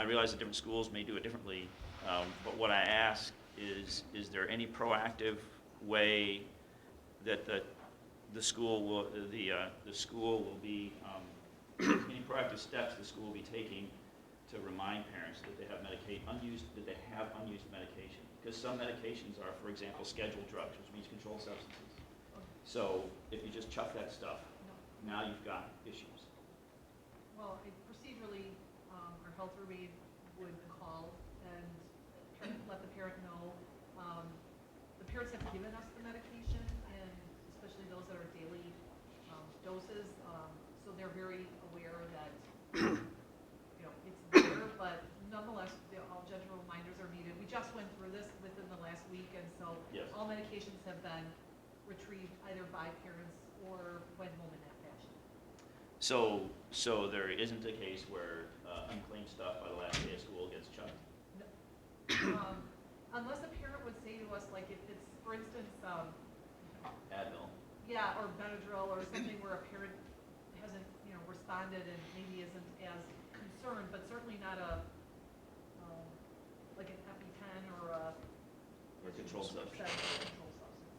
I realize that different schools may do it differently, um, but what I ask is, is there any proactive way that the, the school will, the, uh, the school will be, um, any proactive steps the school will be taking to remind parents that they have medication, unused, that they have unused medication? Because some medications are, for example, scheduled drugs, which means controlled substances. So if you just chuck that stuff, now you've got issues. Well, I- procedurally, um, our health aide would call and try to let the parent know. Um, The parents have given us the medication, and especially those that are daily um, doses, um, so they're very aware that, you know, it's there, but nonetheless, the- all gentle reminders are needed. We just went through this within the last week, and so Yes. all medications have been retrieved either by parents or went home in that fashion. So, so there isn't a case where uh, unclaimed stuff by the last day of school gets chucked? Um, Unless a parent would say to us, like, if it's, for instance, um, Advil. yeah, or Benadryl or something where a parent hasn't, you know, responded and maybe isn't as concerned, but certainly not a, um, like an EpiPen or a. Or controlled substance. Controlled substance,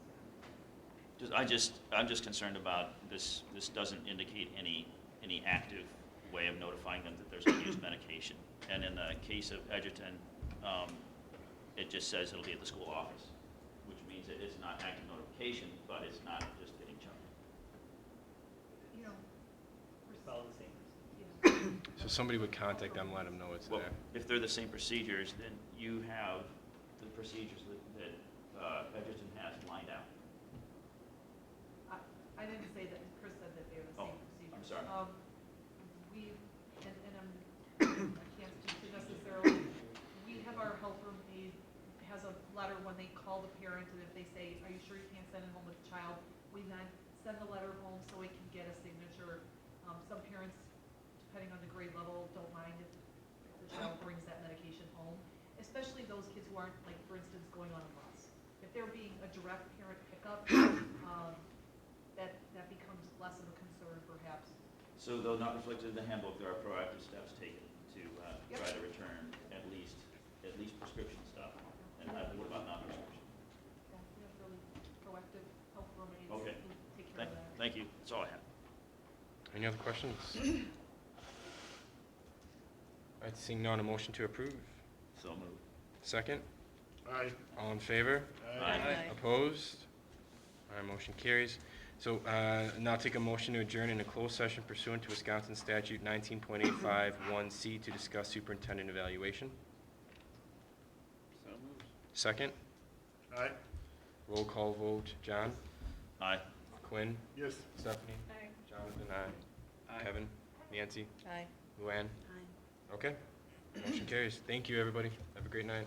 yeah. Just, I just, I'm just concerned about this, this doesn't indicate any, any active way of notifying them that there's unused medication. And in the case of Edgerton, um, it just says it'll be at the school office, which means it is not active notification, but it's not just getting chucked. You know. pers- Follow the same. yeah. So somebody would contact them, let them know it's Well, there. if they're the same procedures, then you have the procedures that, that uh, Edgerton has lined out. I I didn't say that, Chris said that they were the Oh, same procedure. I'm sorry. Um, We, and, and I'm, I can't speak to necessarily, we have our health room aide has a letter when they call the parent, and if they say, are you sure you can't send it home with the child? We then send the letter home so we can get a signature. Um, some parents, depending on the grade level, don't mind if the child brings that medication home, especially those kids who aren't, like, for instance, going on a bus. If they're being a direct parent pickup, um, that, that becomes less of a concern perhaps. So though not reflected in the handbook, there are proactive steps taken to uh, Yep. try to return at least, at least prescription stuff. And uh, what about non-prescription? Yeah, we have really proactive help remedies Okay. who take care Thank, of that. thank you, that's all I have. Any other questions? All right, seeing none, a motion to approve. So moved. Second, Aye. all in favor? Aye. Opposed? All right, motion carries. So uh, now take a motion to adjourn in a closed session pursuant to Wisconsin statute 19.851C to discuss superintendent evaluation. So moved. Second, Aye. roll call vote, John, Aye. Quinn, Yes. Stephanie, Aye. Jonathan, aye. Kevin, Nancy, Aye. Luann. Aye. Okay, motion carries. Thank you, everybody. Have a great night.